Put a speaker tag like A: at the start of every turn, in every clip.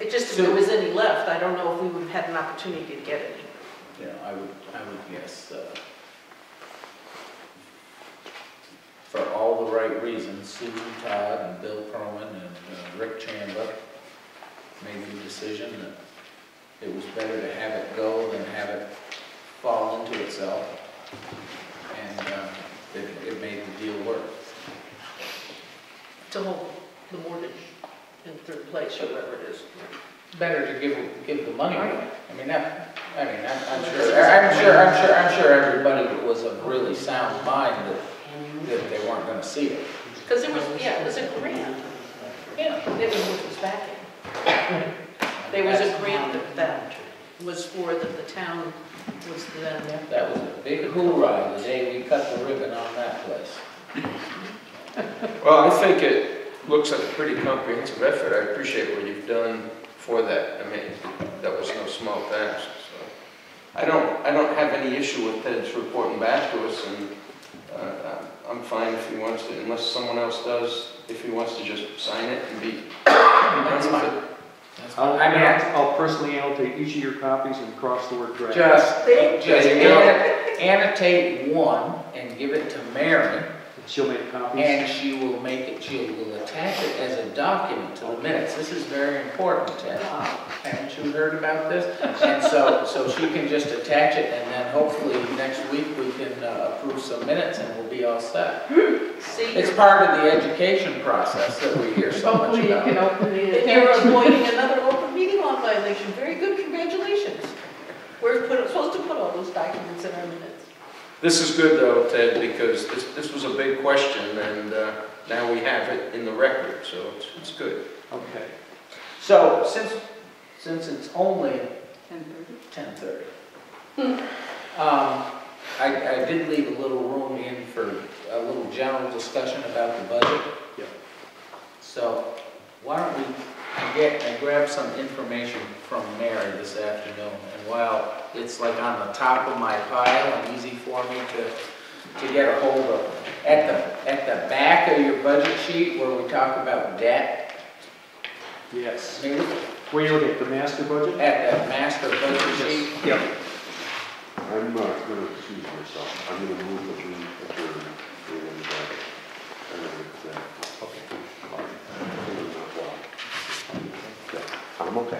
A: It just, if there
B: Uh, So-
A: was any left, I don't know if we would have had an opportunity to get any.
B: Yeah, I would, I would guess, uh, for all the right reasons, Sue Todd and Bill Perlman and uh, Rick Chamba made the decision that it was better to have it go than have it fall into itself. And, uh, it, it made the deal work.
A: to hold the mortgage in third place, or whatever it is.
B: Better to give, give the money away. I mean, that, I mean, I'm, I'm
A: Well,
B: sure,
A: that's-
B: I'm sure, I'm sure, I'm sure everybody was of really sound mind that, that they weren't gonna see it.
A: Because it was, yeah, it was a grant,
B: Yeah.
A: it was, it was backing. There was a grant that, that was for, that the town was then,
B: That was a big hoorah the day we cut the ribbon on that place.
C: Well, I think it looks like a pretty comprehensive effort. I appreciate what you've done for that. I mean, that was no small task, so. I don't, I don't have any issue with Ted's reporting back to us, and uh, I'm fine if he wants to, unless someone else does, if he wants to just sign it and be.
B: That's fine.
D: I'll, I'll personally annotate each of your copies and cross the word draft.
B: Just,
A: Thank
B: just
C: you.
B: anno- annotate one and give it to Mary,
D: She'll make copies.
B: and she will make it, she will attach it as a document to the minutes. This is very important, Ted.
A: uh,
B: Haven't you heard about this? And so, so she can just attach it, and then hopefully next week we can uh, approve some minutes and we'll be all set.
A: see,
B: It's
A: you're-
B: part of the education process that we hear so much
E: Hopefully you
B: about.
E: can open it.
A: and you're avoiding another open meeting law violation, very good, congratulations. We're put- supposed to put all those documents in our minutes.
C: This is good though, Ted, because this, this was a big question, and uh, now we have it in the record, so it's, it's good.
D: Okay.
B: So since, since it's only ten thirty. Um, I, I did leave a little room in for a little general discussion about the budget.
D: Yeah.
B: So why don't we get, and grab some information from Mary this afternoon? And while it's like on the top of my pile and easy for me to, to get a hold of, at the, at the back of your budget sheet where we talk about debt,
D: Yes.
B: maybe
D: Where you look at the master budget?
B: at that master budget sheet,
D: Yep.
F: I'm uh, gonna excuse myself, I'm gonna move the lead adjourned and, uh, and, uh, okay. I'm okay.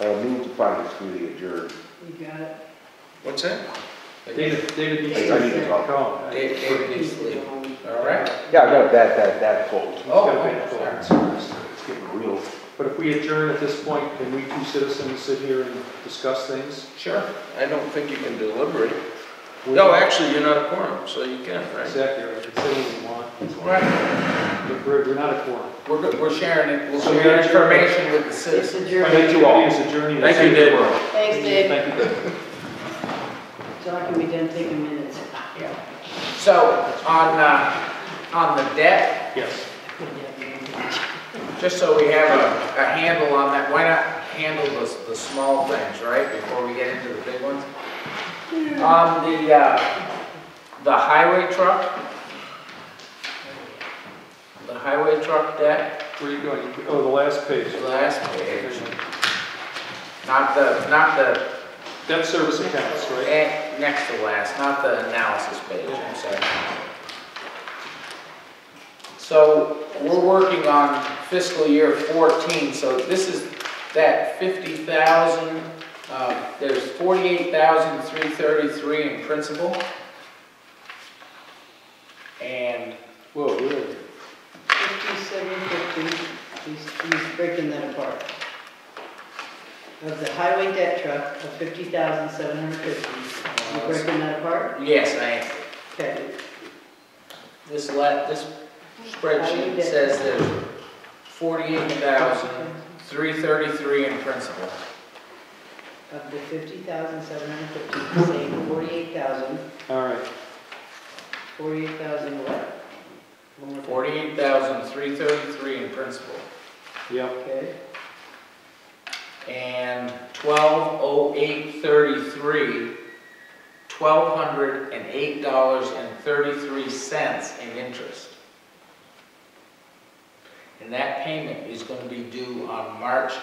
F: Uh, move the finance committee adjourned.
E: You got it.
C: What's that?
D: David, David needs
F: I need to
D: to
F: talk.
D: call.
B: Dave, Dave needs to leave. All right?
F: Yeah, no, that, that, that folds.
B: Oh,
D: Let's
F: It's getting real.
D: But if we adjourn at this point, can we two citizens sit here and discuss things?
C: Sure. I don't think you can deliberate. No, actually, you're not a quorum, so you can, right?
D: Exactly, right. we can say what we want,
B: Right,
D: but we're, we're not a quorum.
B: we're, go- we're sharing it, we'll
D: So
B: share
D: you're-
B: information with the
E: It's
B: citizens.
E: a
D: Finance
E: journey.
D: committee is adjourning at
C: Thank
D: six
C: you, Dave.
D: o'clock.
A: Thanks, Dave.
D: Thank you, Dave.
E: So I can be done taking minutes.
B: So, on, uh, on the debt,
D: Yes.
B: just so we have a, a handle on that, why not handle the, s- the small things, right, before we get into the big ones? On the, uh, the highway truck, the highway truck debt,
D: Where are you going? Oh, the last page.
B: last page, not the, not the
D: Debt service accounts, right?
B: Eh, next to last, not the analysis page, I'm sorry. So, we're working on fiscal year 14, so this is that 50,000, uh, there's 48,333 in principal. And
D: Whoa, really?
E: Fifty-seven fifty, he's, he's breaking that apart. Of the highway debt truck of fifty thousand seven hundred fifty, you breaking that apart?
B: uh, yes, I,
E: Okay,
B: this la, this spreadsheet says there's 48,333 in principal.
E: of the fifty thousand seven hundred fifty, saying forty-eight thousand,
D: All right.
E: forty-eight thousand what? One more time.
B: Forty-eight thousand, three thirty-three in principal,
D: Yep.
E: Okay,
B: and twelve oh eight thirty-three, twelve hundred and eight dollars and thirty-three cents in interest. And that payment is gonna be due on March